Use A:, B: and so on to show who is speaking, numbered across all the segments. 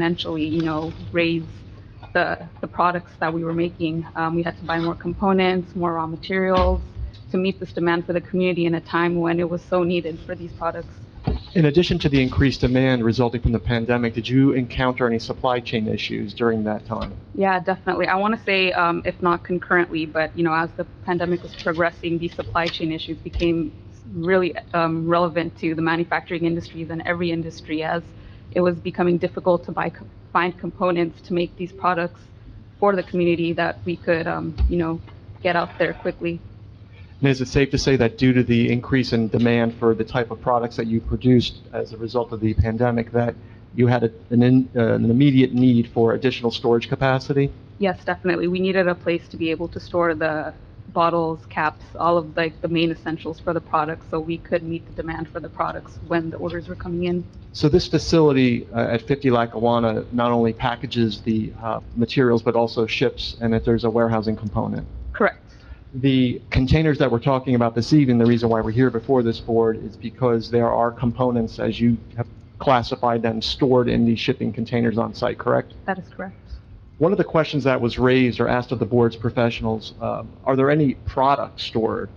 A: exponentially, you know, raise the, the products that we were making. Um, we had to buy more components, more raw materials to meet this demand for the community in a time when it was so needed for these products.
B: In addition to the increased demand resulting from the pandemic, did you encounter any supply chain issues during that time?
A: Yeah, definitely. I want to say, um, if not concurrently, but, you know, as the pandemic was progressing, these supply chain issues became really, um, relevant to the manufacturing industries and every industry as it was becoming difficult to buy, co- find components to make these products for the community that we could, um, you know, get out there quickly.
B: And is it safe to say that due to the increase in demand for the type of products that you produced as a result of the pandemic, that you had a- an in- uh, an immediate need for additional storage capacity?
A: Yes, definitely. We needed a place to be able to store the bottles, caps, all of like the main essentials for the products, so we could meet the demand for the products when the orders were coming in.
B: So this facility uh, at 50 Lackawanna not only packages the uh, materials, but also ships, and that there's a warehousing component.
A: Correct.
B: The containers that we're talking about this evening, the reason why we're here before this board is because there are components, as you have classified them, stored in these shipping containers on site, correct?
A: That is correct.
B: One of the questions that was raised or asked of the board's professionals, um, are there any products stored?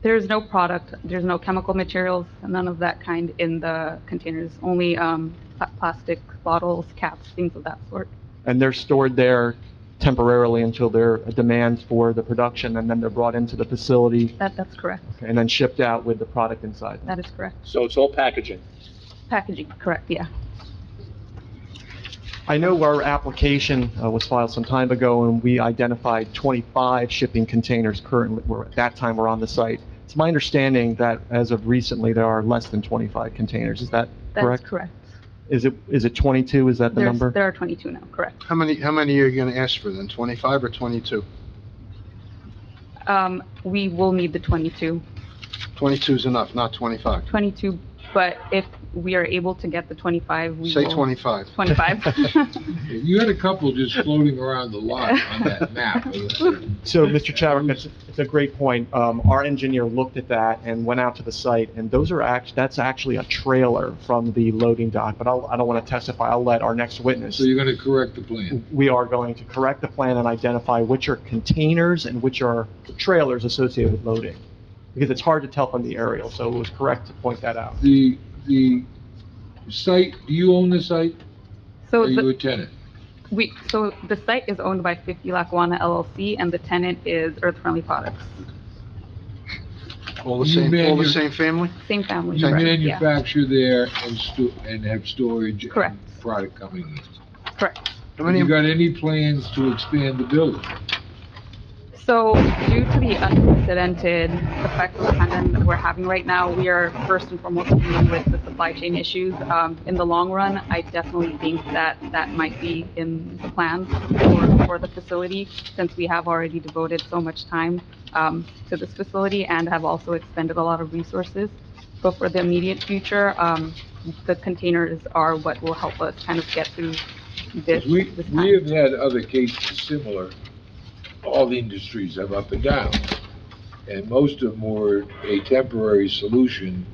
A: There is no product, there's no chemical materials, none of that kind in the containers, only um, pla- plastic bottles, caps, things of that sort.
B: And they're stored there temporarily until there are demands for the production, and then they're brought into the facility
A: That, that's correct.
B: and then shipped out with the product inside.
A: That is correct.
C: So it's all packaging.
A: Packaging, correct, yeah.
B: I know our application uh, was filed some time ago, and we identified 25 shipping containers currently, were- at that time, were on the site. It's my understanding that as of recently, there are less than 25 containers. Is that
A: That is
B: correct?
A: correct.
B: Is it, is it 22? Is that the
A: There's,
B: number?
A: there are 22 now, correct.
D: How many, how many are you gonna ask for then, 25 or 22?
A: Um, We will need the 22,
D: 22 is enough, not 25.
A: 22, but if we are able to get the 25, we will.
D: Say 25.
A: 25.
E: You had a couple just floating around the lot on that map.
B: So, Mr. Chadwick, that's, it's a great point. Um, our engineer looked at that and went out to the site, and those are act, that's actually a trailer from the loading dock, but I'll, I don't want to testify. I'll let our next witness.
E: So you're gonna correct the plan.
B: we are going to correct the plan and identify which are containers and which are trailers associated with loading, because it's hard to tell from the aerial, so it was correct to point that out.
E: The, the site, do you own the site?
A: So
E: Are you
A: Oh, the-
E: a tenant?
A: we, so the site is owned by 50 Lackawanna LLC, and the tenant is Earth Friendly Products,
D: All the
E: You
D: same, all the
E: manu-
D: same family?
A: same family.
E: You
A: correct, yeah.
E: manufacture there and sto, and have storage? and
A: Correct.
E: Product coming in.
A: Correct.
D: How
E: Have
D: many,
E: you got any plans to expand the building?
A: So due to the unprecedented effect of the pandemic that we're having right now, we are first and foremost dealing with the supply chain issues. Um, In the long run, I definitely think that that might be in the plans for, for the facility, since we have already devoted so much time um, to this facility and have also expended a lot of resources. But for the immediate future, um, the containers are what will help us kind of get through this,
E: 'Cause We,
A: this time.
E: we have had other cases similar, all the industries have up and down, and most of them were a temporary solution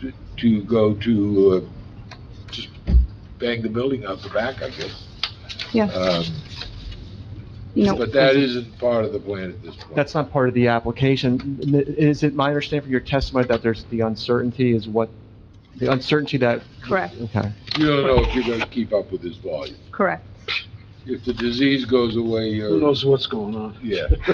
E: to- to go to, uh, just bang the building out the back, I guess.
A: Yeah,
E: Um,
A: you know.
E: But that isn't part of the plan at this point.
B: That's not part of the application. N- Is it my understanding from your testimony that there's, the uncertainty is what, the uncertainty that?
A: Correct,
B: Okay.
E: You don't know if you're gonna keep up with this volume.
A: correct.
E: If the disease goes away,
D: who
E: you're,
D: knows what's going on?
E: yeah,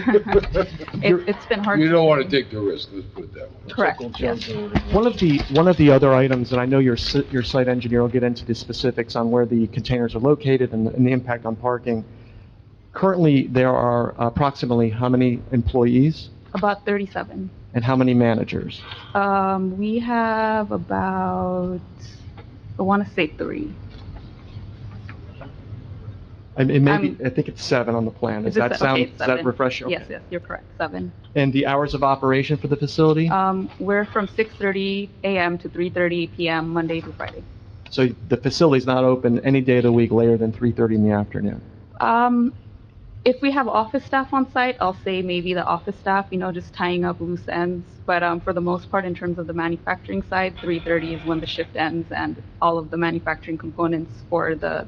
A: It, it's been hard.
E: you don't wanna take the risk, let's put it that way.
A: Correct, yes.
B: One of the, one of the other items, and I know your, si- your site engineer will get into the specifics on where the containers are located and the- and the impact on parking. Currently, there are approximately how many employees
A: About 37.
B: and how many managers?
A: Um, we have about, I want to say three.
B: I mean, maybe,
A: Um,
B: I think it's seven on the plan. Does
A: Is it
B: that
A: se- okay,
B: sound,
A: it's
B: does that
A: seven.
B: refresh? Mm-hmm. okay.
A: Yes, yes, you're correct, seven.
B: And the hours of operation for the facility?
A: Um, we're from 6:30 AM to 3:30 PM, Monday to Friday.
B: So the facility's not open any day of the week later than 3:30 in the afternoon?
A: Um, if we have office staff on site, I'll say maybe the office staff, you know, just tying up loose ends. But um, for the most part, in terms of the manufacturing side, 3:30 is when the shift ends and all of the manufacturing components for the